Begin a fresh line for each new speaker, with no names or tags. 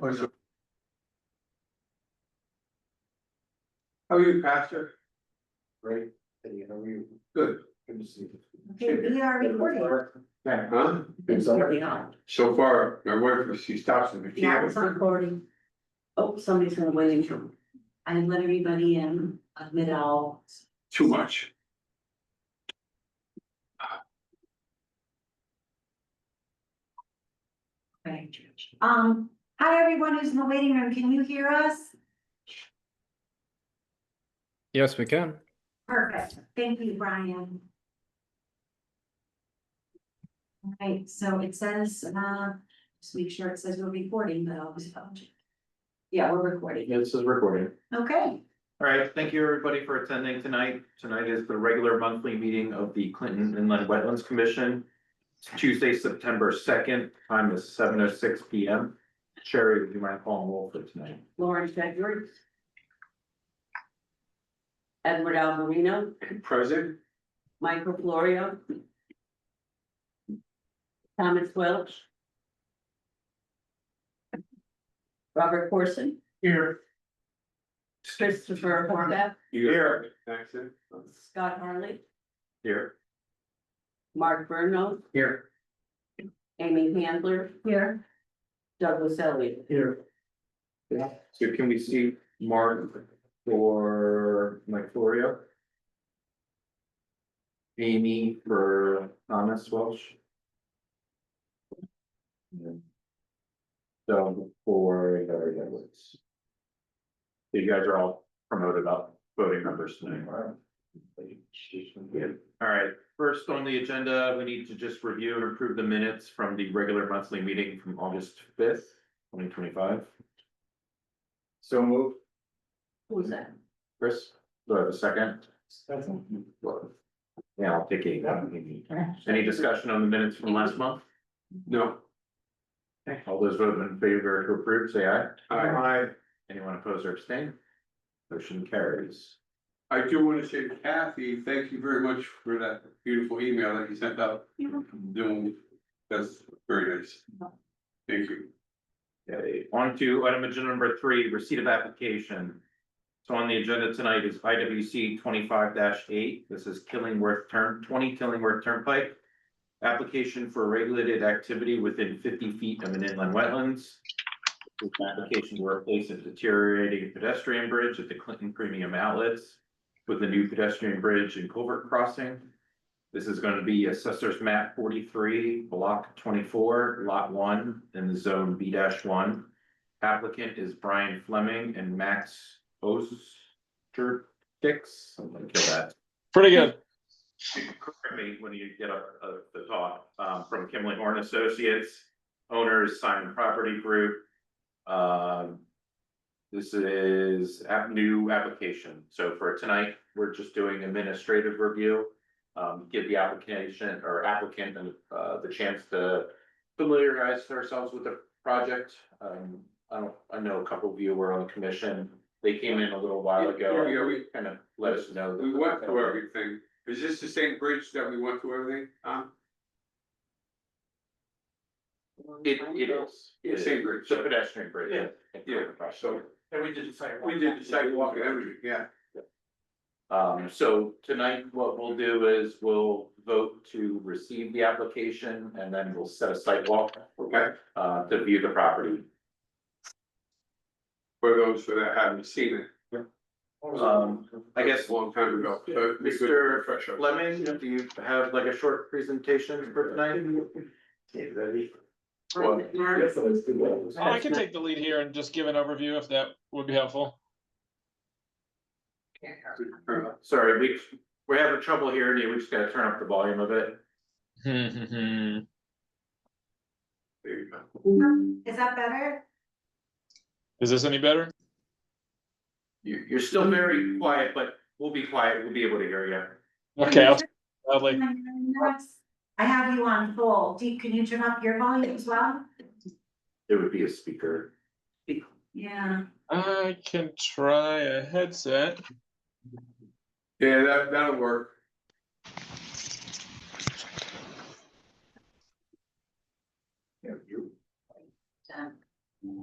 Or is it- How are you, Pastor?
Great, and you know, you,
Good.
good to see you.
Okay, we are recording.
Yeah.
Huh?
It's all right.
We are.
So far, my wife, she stops at the
Now
key.
it's recording. Oh, somebody's gonna wait in. I let everybody in, admit all.
Too much.
Um, hi, everyone who's in the waiting room. Can you hear us?
Yes, we can.
Perfect. Thank you, Brian. All right, so it says, uh, just make sure it says we're recording, but I always double check. Yeah, we're recording.
This is recording.
Okay,
All right, thank you everybody for attending tonight. Tonight is the regular monthly meeting of the Clinton Inland Wetlands Commission. It's Tuesday, September second, time is seven oh six P M. Sherry, would you mind calling roll for tonight?
Lauren Tedford. Edward Alvarino,
Present?
Michael Florio. Thomas Welch. Robert Corson,
Here.
Christopher Horvath,
Here. Accent?
Scott Harley,
Here.
Mark Bruno,
Here.
Amy Handler,
here.
Douglas Elliott.
Here. Yeah, so can we see Mark for Mike Florio? Amy for Thomas Welsh? Doug for Larry Edwards. You guys are all promoted up voting members tonight. Good. All right, first on the agenda, we need to just review and approve the minutes from the regular monthly meeting from August fifth twenty twenty-five.
So move.
Who was that?
Chris, do I have a second? Yeah, I'll take eight. Any discussion on the minutes from last month?
No.
Okay, All those voting in favor to approve, say aye.
I,
Anyone opposed or abstain? Motion carries.
I do want to say Kathy, thank you very much for that beautiful email that you sent out. Doing, that's very nice. Thank you.
Okay, on to item agenda number three, receipt of application. So on the agenda tonight is I W C twenty-five eight, this is Killingworth Turn, twenty Killingworth Turnpike. Application for regulated activity within fifty feet of an inland wetlands. This application to replace a deteriorating pedestrian bridge at the Clinton Premium Outlets with a new pedestrian bridge and culvert crossing. This is gonna be assessor's map forty-three, block twenty-four, lot one, in the zone B one. Applicant is Brian Fleming and Max Oster Dix, I'm gonna kill that.
Pretty good.
Correct me when you get up, uh, the talk, um, from Kimley Horn Associates, owners Simon Property Group. Um, this is app, new application, so for tonight, we're just doing administrative review. Um, give the application or applicant and, uh, the chance to familiarize ourselves with the project. Um, I don't, I know a couple of you were on the commission, they came in a little while ago,
Yeah, we,
kind of let us know. that-
we went through everything. Is this the same bridge that we went through everything? Huh?
It, it is.
Yeah, same bridge.
It's a pedestrian bridge.
Yeah. Yeah, so-
And we did the same.
We did the sidewalk and everything, yeah.
Um, so tonight, what we'll do is we'll vote to receive the application and then we'll set a sidewalk.
Okay.
Uh, to view the property.
For those that haven't seen it.
Um, I guess
a long time ago. so it'd be good to
Mr.
refresh our-
Fleming, do you have like a short presentation for tonight?
Or is it Mark?
Oh, I can take the lead here and just give an overview if that would be helpful.
Sorry, we, we're having trouble hearing you. We just gotta turn up the volume a bit.
That's
There you go.
Is that better?
Is this any better?
You, you're still very quiet, but we'll be quiet. We'll be able to hear you.
Okay, I'll loudly.
Um, I have you on full. Deep, can you turn up your volume as well?
It would be a speaker.
Yeah.
I can try a headset.
Yeah, that, that'll work.